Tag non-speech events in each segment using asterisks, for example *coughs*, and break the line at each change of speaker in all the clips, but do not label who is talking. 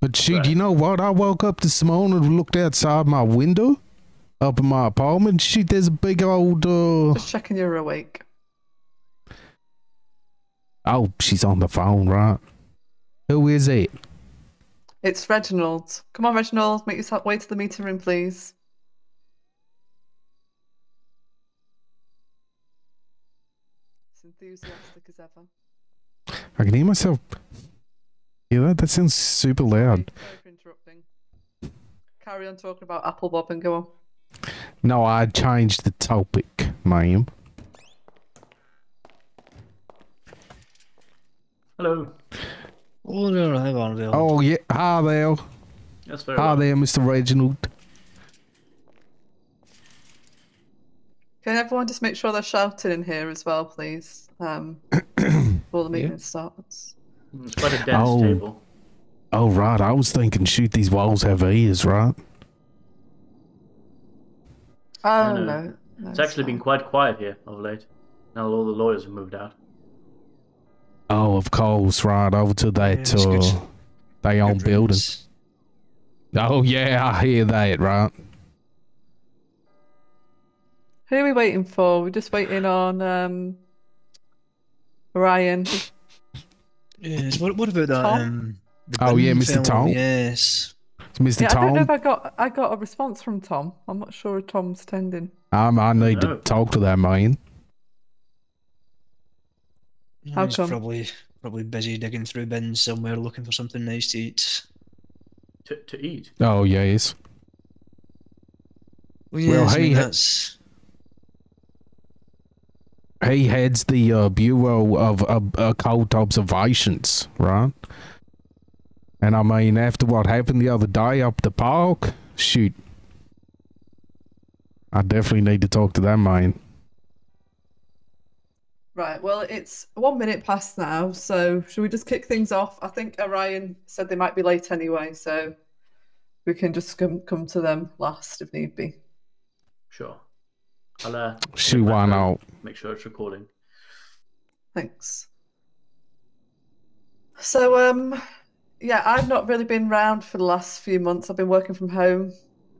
But she,
Right.
you know what? I woke up this morning and looked outside my window up in my apartment. She, there's a big old, uh,
Just checking you're awake.
oh, she's on the phone, right? Who is it?
It's Reginald. Come on, Reginald, make yourself way to the meeting room, please. It's enthusiastic as ever.
I can hear myself. Yeah, that, that sounds super
Sorry,
loud.
sorry for interrupting. Carry on talking about Apple Bob and go on.
No, I changed the topic, ma'am.
Hello.
Oh, there, hang on there.
Oh, yeah. Hi there.
Yes, very
Hi
well.
there, Mr. Reginald.
Can everyone just make sure they're shouting in here as well, please? Um, before the meeting starts.
It's Mm, quite a dense
Oh.
table.
Oh, right. I was thinking, shoot, these walls have ears, right?
Oh,
no.
no. no,
It's actually been
fine.
quite quiet here of late. Now all the lawyers have moved out.
Oh, of course, right. Over to that,
Yeah, it's good.
uh, they own
Good
building.
riddance.
Oh, yeah, I hear that, right?
Who are we waiting for? We're just waiting on um, Ryan.
Yes. What, what about that?
Tom?
Um, the
Oh, yeah,
Bin
Mr.
fellow?
Tom.
Yes.
It's Mr.
Yeah, I don't
Tom,
know
I,
if I got I got a response from Tom. I'm not sure if Tom's tending.
Um, I need to
No.
talk to that man.
How
He's
come?
probably probably busy digging through bins somewhere looking for something nice to eat.
To, to eat.
Oh, yes.
Well,
Well,
yes, I
hey,
mean,
ha-
that's
He heads the uh, Bureau of uh, Occult Observations, right? And I mean, after what happened the other day up the park, shoot. I definitely need to talk to that man.
Right. Well, it's one minute past now, so should we just kick things off? I think Orion said they might be late anyway, so we can just come come to them last if need be.
Sure. I'll uh,
Shoot, why not?
make sure it's recording.
Thanks. So, um, yeah, I've not really been round for the last few months. I've been working from home.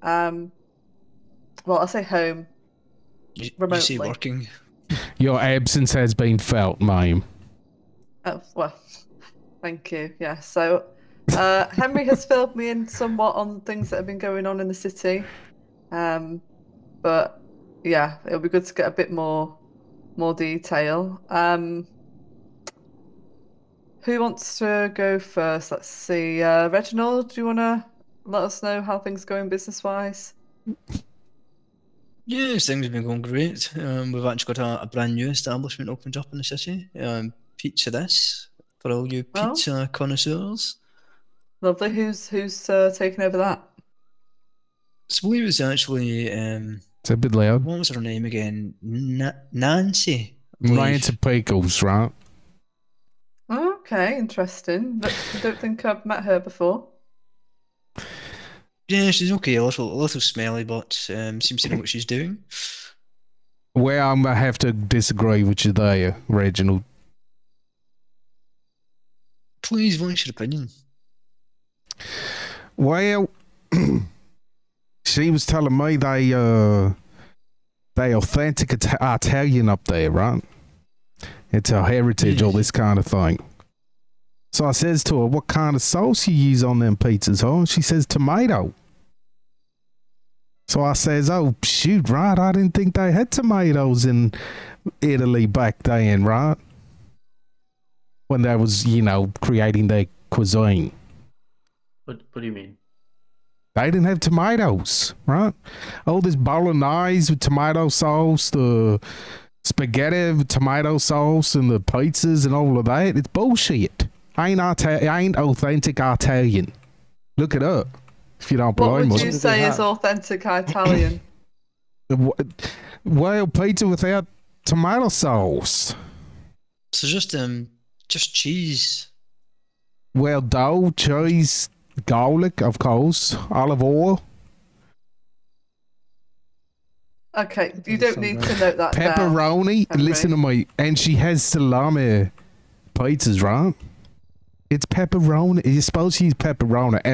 Um, well, I say home.
you, you
Remotely.
see working.
Your absence has been felt, ma'am.
Oh, well, thank you. Yeah. So, uh, Henry has filled me in somewhat on things that have been going on in the city. Um, but yeah, it'll be good to get a bit more more detail. Um, who wants to go first? Let's see. Uh, Reginald, do you want to let us know how things going business wise?
Yes, things have been going great. Um, we've actually got a, a brand new establishment opened up in the city. Um, pizza this for all you
Oh.
pizza connoisseurs.
Lovely. Who's who's uh, taking over that?
So we was actually um,
It's a bit loud.
what was her name again? Na- Nancy. I believe.
Lance Pickles, right?
Okay, interesting. I don't think I've met her before.
Yeah, she's okay. A little, a little smelly, but um, seems to know what she's doing.
Well, I'm gonna have to disagree with you there, Reginald.
Please voice your opinion.
Well, *clears throat* she was telling me they uh they authentic Ita- Italian up there, right? It's her heritage, all this kind of thing. So I says to her, "What kind of sauce you use on them pizzas, huh?" She says, "Tomato." So I says, "Oh shoot, right? I didn't think they had tomatoes in Italy back then, right? When they was, you know, creating their cuisine."
What, what do you mean?
They didn't have tomatoes, right? All this bolognese with tomato sauce, the spaghetti with tomato sauce, and the pizzas and all of that. It's bullshit. Ain't Ita- ain't authentic Italian. Look it up if you don't
What
believe
would
me.
you
What do
say
they
is
have?
authentic
*coughs*
Italian?
Wh- Well, pizza without tomato sauce.
So just um, just cheese.
Well, dough, cheese, garlic, of course, olive oil,
Okay, you
doesn't
don't need
sound
to note that down.
pepperoni.
Okay.
Listen to me, and she has salami pizzas, right? It's pepperoni. You're supposed to use pepperoni.